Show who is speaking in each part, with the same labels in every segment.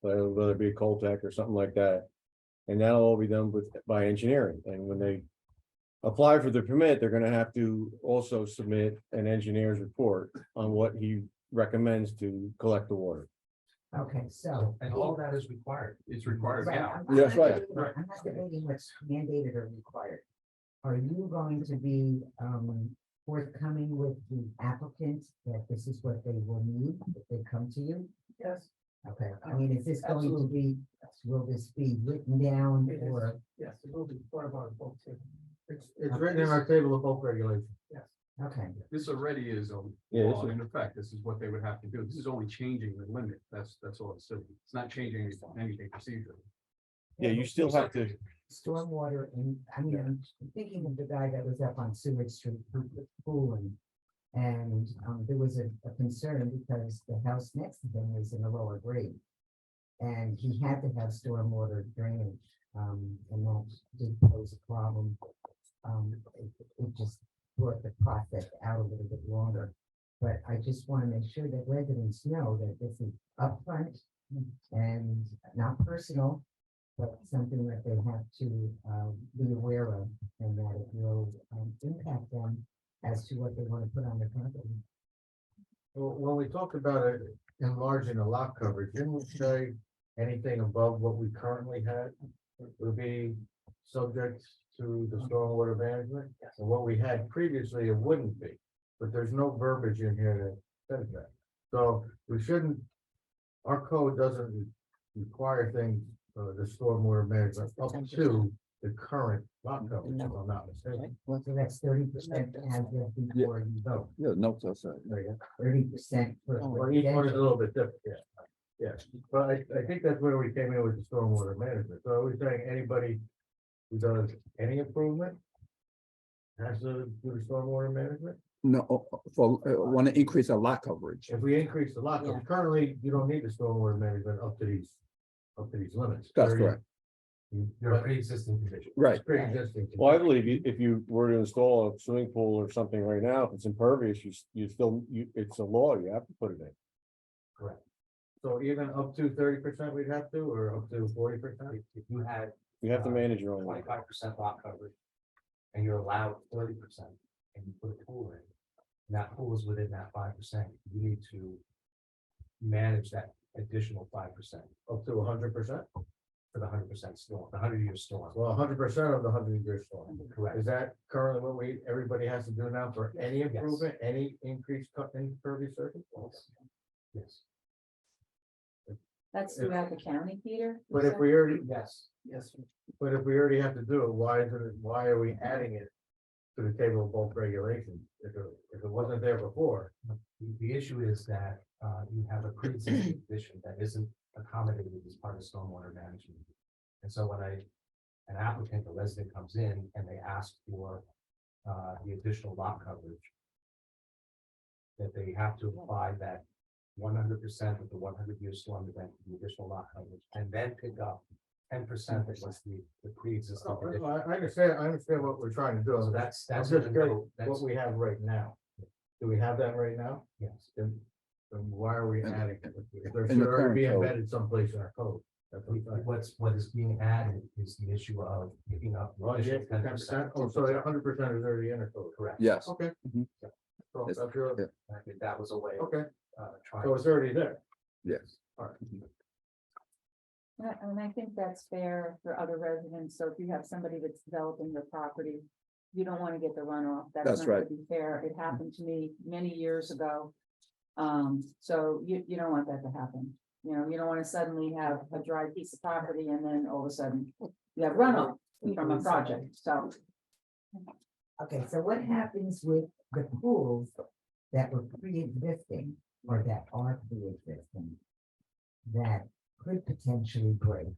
Speaker 1: whether uh, whether it be a Coltech or something like that. And that'll all be done with, by engineering, and when they apply for the permit, they're gonna have to also submit an engineer's report on what he recommends to collect the water.
Speaker 2: Okay, so.
Speaker 3: And all that is required. It's required
Speaker 2: Right,
Speaker 3: now.
Speaker 2: I'm- I'm
Speaker 1: That's
Speaker 2: not
Speaker 1: right.
Speaker 2: debating-
Speaker 3: Right.
Speaker 2: I'm not debating what's mandated or required. Are you going to be um forthcoming with the applicant that this is what they will need if they come to you?
Speaker 4: Yes,
Speaker 2: Okay, I mean, is this going to be, will this be written down
Speaker 4: It is.
Speaker 2: or,
Speaker 4: yes, it will be part of our book too.
Speaker 5: It's, it's written in our table of bulk regulations.
Speaker 2: okay,
Speaker 3: This already is a
Speaker 1: Yeah, this
Speaker 3: law
Speaker 1: is-
Speaker 3: in effect. This is what they would have to do. This is only changing the limit. That's, that's all it's doing. It's not changing anything- anything procedure.
Speaker 1: Yeah, you still have to,
Speaker 2: stormwater and, I mean, I'm thinking of the guy that was up on Seward Street who was pooling. And um there was a a concern because the house next to him was in the lower grade. And he had to have stormwater drainage, um, and that did pose a problem. Um, it, it just brought the process out a little bit longer. But I just want to make sure that residents know that this is upfront and not personal. But something that they have to, um, be aware of and that it will, um, impact them as to what they want to put on their property.
Speaker 5: Well, When we talked about it enlarging the lot coverage, didn't we say anything above what we currently had would be subject to the stormwater management? And what we had previously, it wouldn't be, but there's no verbiage in here that says that. So we shouldn't, our code doesn't re- require things, uh, the stormwater management up to the current lot coverage, if I'm not mistaken.
Speaker 2: Well, so that's thirty percent as of before you vote,
Speaker 6: Yeah, notes outside.
Speaker 5: There you go.
Speaker 2: thirty percent for.
Speaker 7: Oh,
Speaker 5: Well, each one is a
Speaker 2: residential.
Speaker 5: little bit different, yeah. Yeah, but I, I think that's where we came in with the stormwater management. So are we saying anybody who does any improvement has to do the stormwater management?
Speaker 6: No, oh, oh, for, want to increase our lot coverage.
Speaker 5: If we increase the lot, coverage, currently, you don't need the stormwater management up to these, up to these limits.
Speaker 6: That's
Speaker 5: They're-
Speaker 6: correct.
Speaker 5: you- You're a pre-existing condition.
Speaker 6: Right.
Speaker 5: It's Pre-existing.
Speaker 1: well, I believe you- if you were to install a swimming pool or something right now, if it's impervious, you, s- you still, you, it's a law, you have to put it in.
Speaker 5: So even up to thirty percent we'd have to, or up to forty percent?
Speaker 7: if you had
Speaker 1: You have to
Speaker 2: Uh,
Speaker 1: manage your own. life.
Speaker 7: twenty-five percent lot coverage. And you're allowed thirty percent and you put a pool in. And that pool is within that five percent, you need to. Manage that additional five percent
Speaker 5: Up to hundred percent?
Speaker 7: for the hundred percent storm, the hundred year storm.
Speaker 5: Well, hundred percent of the hundred year storm.
Speaker 7: Correct,
Speaker 5: Is that currently what we, everybody has to do now for any
Speaker 7: Yes.
Speaker 5: improvement, any increase cut in pervious surface?
Speaker 7: yes,
Speaker 8: That's
Speaker 5: If-
Speaker 8: throughout the county, Peter?
Speaker 5: But if we already,
Speaker 7: yes,
Speaker 4: Yes,
Speaker 5: but if we already have to do it, why is it, why are we adding it to the table of bulk regulations? If it, if it wasn't there before,
Speaker 7: the, the issue is that, uh, you have a pre-existing condition that isn't accommodated as part of stormwater management. And so when I, an applicant, a resident comes in and they ask for, uh, the additional lot coverage. That they have to apply that one hundred percent of the one hundred year storm event, the additional lot coverage, and then pick up ten percent that was the, the
Speaker 5: I,
Speaker 7: pre-existing condition.
Speaker 5: Oh, I understand, I understand what we're trying to do.
Speaker 7: So
Speaker 5: I'm
Speaker 7: that's, that's. what
Speaker 5: just
Speaker 7: the
Speaker 5: curious
Speaker 7: note-
Speaker 5: What
Speaker 7: That's,
Speaker 5: we have right now. Do we have that right now?
Speaker 7: yes,
Speaker 5: Then, then why are we
Speaker 6: And-
Speaker 5: adding? it? There
Speaker 6: and the
Speaker 5: should already be
Speaker 6: current code.
Speaker 5: embedded someplace in our code. That's what I'm saying.
Speaker 7: what's, what is being added is the issue of picking up. the
Speaker 5: Well, Oh, yeah,
Speaker 7: additional
Speaker 5: ten percent, oh, so a hundred percent is already in the code.
Speaker 7: Correct.
Speaker 6: Yes.
Speaker 5: Okay.
Speaker 6: Mhm.
Speaker 5: So
Speaker 6: Yes.
Speaker 5: that's your-
Speaker 6: Yeah.
Speaker 7: I think that was a way of,
Speaker 5: Okay,
Speaker 7: uh, trying.
Speaker 5: so it's already there.
Speaker 6: Yes.
Speaker 8: And I- And I think that's fair for other residents, so if you have somebody that's developing their property, you don't wanna get the runoff.
Speaker 6: That's
Speaker 8: not gonna
Speaker 6: right.
Speaker 8: Be fair, it happened to me many years ago. Um, so you, you don't want that to happen, you know, you don't wanna suddenly have a dry piece of property and then all of a sudden you have runoff from a project, so.
Speaker 2: Okay, so what happens with the pools that were pre-existing or that are pre-existing? That could potentially break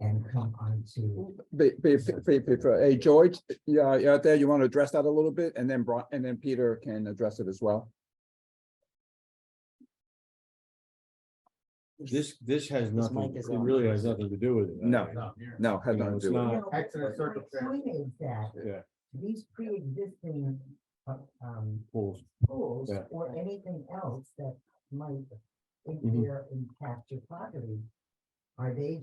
Speaker 2: and come onto.
Speaker 6: Be, be, be- be- be- hey, George, yeah, you out there, you want to address that a little bit? And then Bron, and then Peter can address it as well.
Speaker 1: This, this has nothing,
Speaker 2: mic
Speaker 1: it
Speaker 2: is on.
Speaker 1: really has nothing to do with it.
Speaker 6: No.
Speaker 5: No,
Speaker 6: No, had
Speaker 1: No,
Speaker 6: nothing
Speaker 1: it's
Speaker 6: to do with it.
Speaker 1: not.
Speaker 2: No, but what
Speaker 5: Accident
Speaker 2: my
Speaker 5: circumstance.
Speaker 2: point is that
Speaker 1: Yeah,
Speaker 2: these pre-existing uh, um
Speaker 1: pools.
Speaker 2: pools
Speaker 1: Yeah.
Speaker 2: or anything else that might
Speaker 1: Mhm.
Speaker 2: interfere impact your property. Are they